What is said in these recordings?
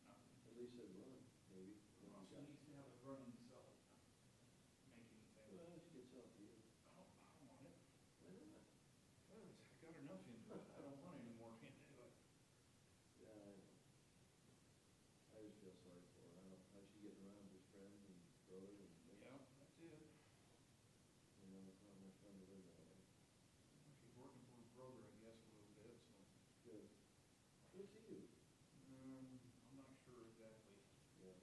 he said run, maybe. Well, she needs to have it running, so making it Well, available. it's good talk to you. I don't, I don't want it. Why not? I got enough into it. I don't want any more into it. Yeah, I know. I just feel sorry for her. I don't, how's she getting around with friends and brother and, you Yeah, that's it. know, it's not much fun to live that way. She's working for her brother, I guess, a little bit, so. Good. Good to you. Um, I'm not sure exactly. Yeah.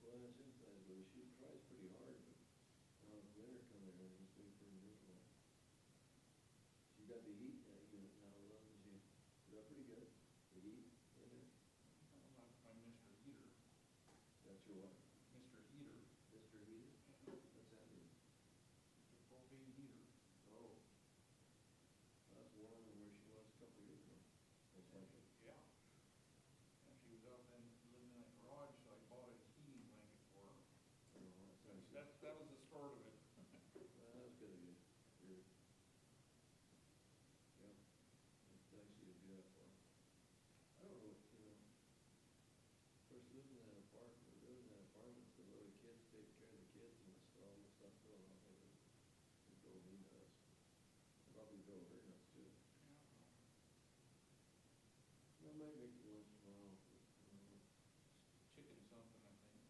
Well, that's inside, but she tries pretty hard, but, um, winter coming in, it's been pretty miserable. She got the heat, uh, you know, now, love, and she, she got pretty good, the heat, in there. I don't know if I'm Mr. Heater, That's your what? Mr. Heater, Mr. Heater? What's that mean? the propane heater. Oh. That's warmer than where she was a couple years ago. That's like it. Yeah. And she was up and living in that garage, so I bought a heating blanket for her. I don't know, that's So nice. That's, that was the start of it. Well, That's good of you. You're- Yeah, it's nice you to do that for. 'em. I don't know, you know, of course, living in that apartment, living in that apartment, with the little kids, taking care of the kids and that's all the stuff going on with it. It drove me nuts. Probably drove her nuts too. I might make it once in a while. but, um, Chicken something, I think.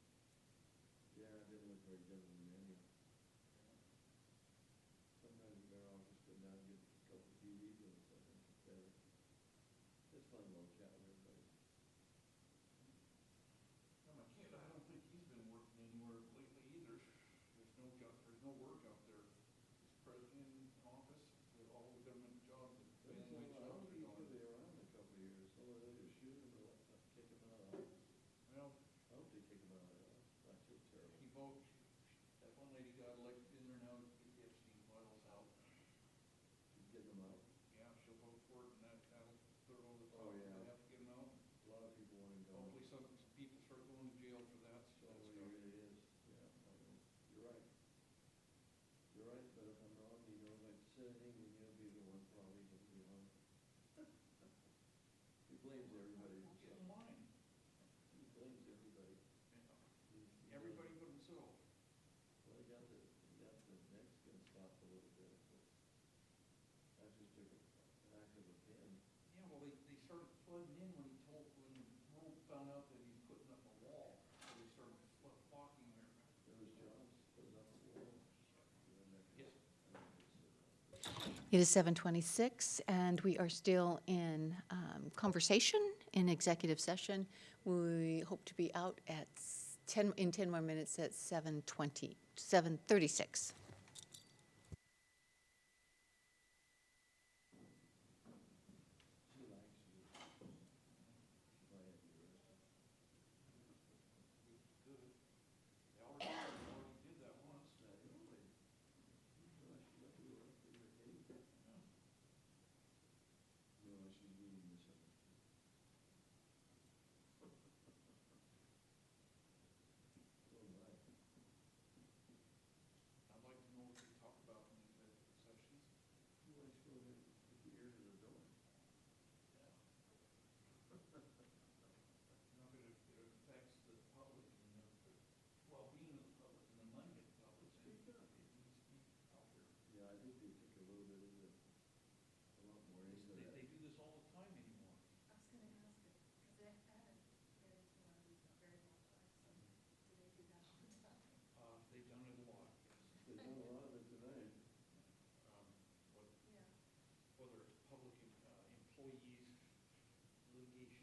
Yeah, I didn't look very good in the menu. Sometimes you go off, just go down and get a couple of TVs and something, it's better. It's fun little chat with everybody. Now, my kid, I don't think he's been working anywhere lately either. There's no job, there's no work out there. His president office, they're all government jobs, the But it's family like, I jobs don't are think gone. he'll be around in a couple of years, so they'll either shoot him or let them kick him out. I Well, hope they kick him out, of the office. that's just terrible. he voted, that one lady got elected in there now, if she boils out. She's getting them out. Yeah, she'll vote for it, and that, that'll throw all the Oh, talk, yeah. they have to get him out. A lot of people want him gone. Hopefully some people start going to jail for that, That's so all that's it good. really is, Oh, yeah, I know. You're right. You're right, but if I'm wrong, you know, like sitting, then you'll be the one probably to be on. He blames everybody, We're so, getting mine. he blames everybody. He- he Everybody but himself. blames- Well, he got the, he got the neck's gonna stop a little bit, but I just took an act of a pen. Yeah, well, they, they started flooding in when he told, when the world found out that he's putting up a wall. So they started flo- flocking there. There was John's putting up a wall. and then- Yes. It is 7:26, and we are still in um, conversation in executive session. We hope to be out at s- 10, in 10 more minutes at 7:20, 7:36. Uh, Um, uh,